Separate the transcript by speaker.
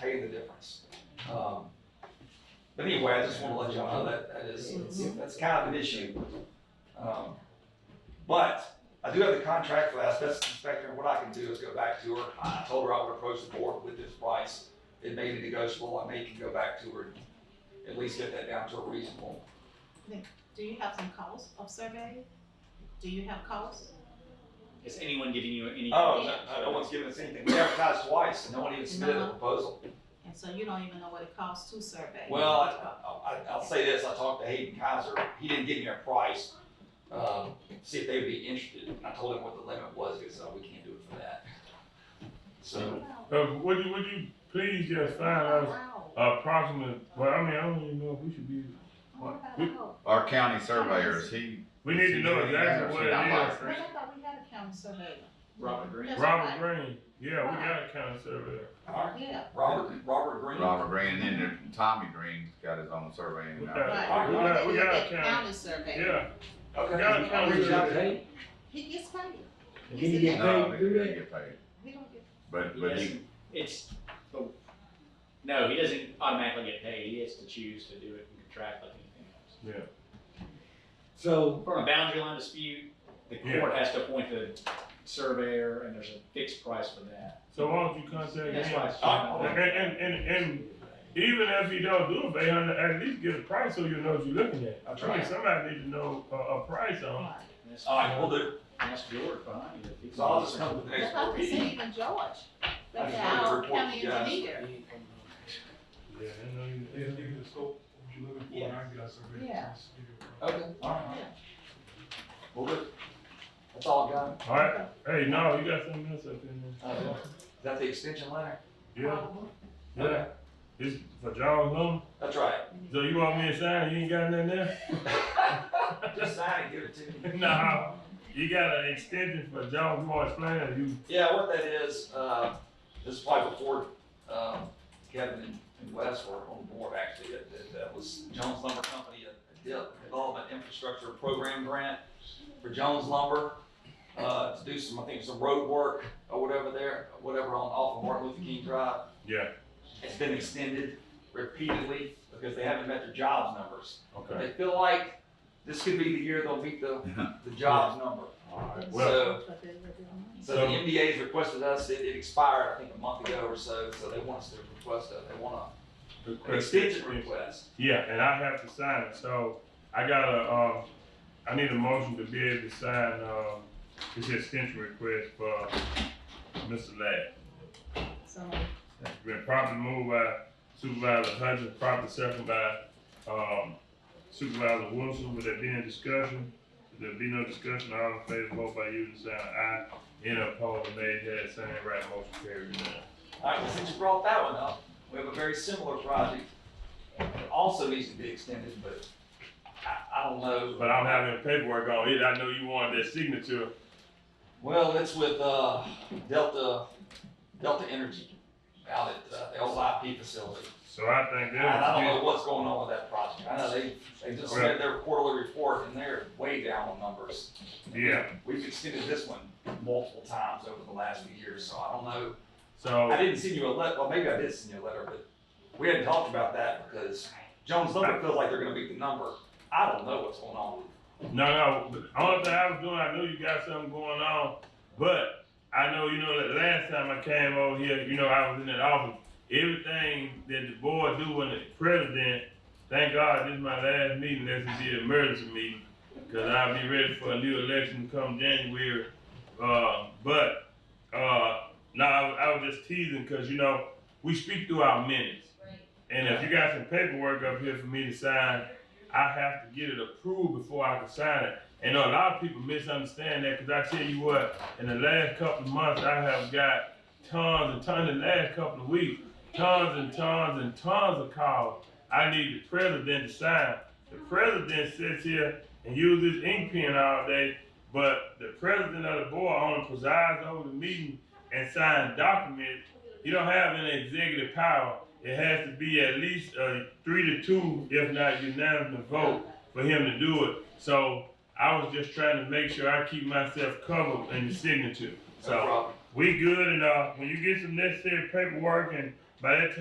Speaker 1: paying the difference. Um, But anyway, I just want to let y'all know that, that is, it's- that's kind of an issue. Um, But I do have the contract for the asbestos inspector, and what I can do is go back to her. I told her I would approach the board with this price. It may be negotiable, I may can go back to her and at least get that down to a reasonable.
Speaker 2: Do you have some costs of survey? Do you have costs?
Speaker 3: Is anyone giving you any?
Speaker 1: Oh, no- no, no one's giving us anything. We advertised twice, and no one even submitted a
Speaker 2: No.
Speaker 1: proposal.
Speaker 2: And so you don't even know what it costs to survey?
Speaker 1: Well, I, I, I'll say this, I talked to Hayden Kaiser, he didn't give me a price, um, see if they would be interested, and I told him what the limit was, because, uh, we can't do it for that. So,
Speaker 4: Um, would you would you please just find us
Speaker 2: Wow.
Speaker 4: approximate? Well, I mean, I don't even know if we should be.
Speaker 2: What about a hoe?
Speaker 5: Our county surveyors, he,
Speaker 4: We need to know exactly what
Speaker 2: Well,
Speaker 4: it
Speaker 2: I thought we had a county surveyor.
Speaker 3: Robert Green.
Speaker 4: is. Robert Green. Yeah, we got a county surveyor.
Speaker 1: alright,
Speaker 2: Yeah,
Speaker 1: Robert, Robert Green,
Speaker 5: Robert Green, and then there- Tommy Green's got his own uh, surveying.
Speaker 4: We
Speaker 5: out
Speaker 4: got,
Speaker 5: there.
Speaker 2: Right.
Speaker 4: we got, we got a
Speaker 2: That
Speaker 4: county.
Speaker 2: county surveyor.
Speaker 4: Yeah, we
Speaker 1: okay,
Speaker 4: got a county
Speaker 2: Reach out to
Speaker 4: surveyor.
Speaker 6: Can
Speaker 2: He gets paid.
Speaker 6: you get
Speaker 5: No,
Speaker 6: paid
Speaker 5: they
Speaker 6: to do
Speaker 5: didn't
Speaker 6: that?
Speaker 5: get paid,
Speaker 2: He don't get,
Speaker 5: but,
Speaker 3: He
Speaker 5: but he,
Speaker 3: doesn't- It's, oh, no, he doesn't automatically get paid, he has to choose to do it and contract like anything else.
Speaker 6: So,
Speaker 3: From a boundary line dispute, the court has to appoint the surveyor, and there's a fixed price for that.
Speaker 4: So why don't you contact
Speaker 3: That's
Speaker 4: him?
Speaker 3: why it's. cheaper.
Speaker 4: And, and and and even if you don't do it, they under- at least give a price so you know what you're looking at.
Speaker 1: That's
Speaker 4: I mean,
Speaker 1: right.
Speaker 4: somebody need to know a, a price on. it.
Speaker 2: right.
Speaker 3: That's-
Speaker 1: alright, we'll do,
Speaker 3: That's George behind you. if he's-
Speaker 1: so I'll just come to the
Speaker 2: That's
Speaker 1: next
Speaker 2: how
Speaker 1: board
Speaker 2: we see
Speaker 1: meeting.
Speaker 2: even George,
Speaker 1: I
Speaker 2: that's
Speaker 1: just wanted to
Speaker 2: our
Speaker 1: report
Speaker 2: county
Speaker 1: you guys.
Speaker 2: engineer.
Speaker 4: Yeah, I know you.
Speaker 7: Yeah, give you the scope, what you're looking for, and I can get a survey.
Speaker 2: Yeah.
Speaker 1: Okay, alright, we'll do, that's all I got.
Speaker 4: All right. Hey, no, you got something else up in
Speaker 1: Uh, Is that the extension letter?
Speaker 4: there? Yeah. Yeah, it's for John's number.
Speaker 1: That's right.
Speaker 4: So you want me to sign? You ain't got nothing there?
Speaker 1: Just sign and give it to me.
Speaker 4: Nah, you got an extension for John's more plan. You
Speaker 1: Yeah, what that is, uh, this is probably before, um, Kevin and- and Wes were on the board actually, that, that- that was Jones Lumber Company, a a de- development infrastructure program grant for Jones Lumber, uh, to do some, I think, some road work or whatever there, whatever on, off of Martin Luther King Drive.
Speaker 4: yeah.
Speaker 1: It's been extended repeatedly because they haven't met their jobs numbers.
Speaker 4: Okay.
Speaker 1: They feel like this could be the year they'll meet the, the jobs number.
Speaker 4: All right. Well,
Speaker 1: So, so the MDA's requested us, it, it expired, I think, a month ago or so, so they want us to request a, they want
Speaker 4: good
Speaker 1: a, an
Speaker 4: question.
Speaker 1: extension request.
Speaker 4: Yeah, and I have to sign it. So I got a, uh, I need a motion to be able to sign um, this extension request for Mr. Ladd.
Speaker 2: So,
Speaker 4: It's been properly moved by Supervisor Hutchins, properly seconded by um, Supervisor Wilson. Would there be any discussion? If there be no discussion, all in favor, vote by using sign aye. Any opposed, nay, had the same right, motion carried unanimous.
Speaker 1: All right, well, since you brought that one up, we have a very similar project that also needs to be extended, but I, I don't know.
Speaker 4: But I don't have any paperwork on it. I know you wanted that signature.
Speaker 1: Well, it's with, uh, Delta, Delta Energy out at, uh, the old IP facility.
Speaker 4: So I think
Speaker 1: And I don't
Speaker 4: that
Speaker 1: know what's going on with that project. I know they, they just submitted their quarterly report and they're way down on numbers.
Speaker 4: was, yeah.
Speaker 1: We've extended this one multiple times over the last few years, so I don't know. I
Speaker 4: So
Speaker 1: didn't send you a letter, well, maybe I did send you a letter, but we hadn't talked about that because Jones Lumber feels like they're gonna beat the number. I don't know what's going on.
Speaker 4: no, no. but the Only thing I was doing, I knew you got something going on, but I know you know that last time I came over here, you know I was in that office. Everything that the board do when the president, thank God this is my last meeting, this is the emergency meeting, because I'll be ready for a new election come January. Uh, but uh, no, I, was- I was just teasing because you know we speak through our minutes. And if you got some paperwork up here for me to sign, I have to get it approved before I can sign it. And a lot of people misunderstand that because I tell you what, in the last couple of months, I have got tons and tons, in the last couple of weeks, tons and tons and tons of calls. I need the president to sign. The president sits here and uses his ink pen all day, but the president of the board only presides over the meeting and signs documents. You don't have any executive power. It has to be at least a three to two, if not unanimous vote, for him to do it. So I was just trying to make sure I keep myself covered in the signature.
Speaker 1: No
Speaker 4: So
Speaker 1: problem.
Speaker 4: we good, and uh, when you get some necessary paperwork, and by that time.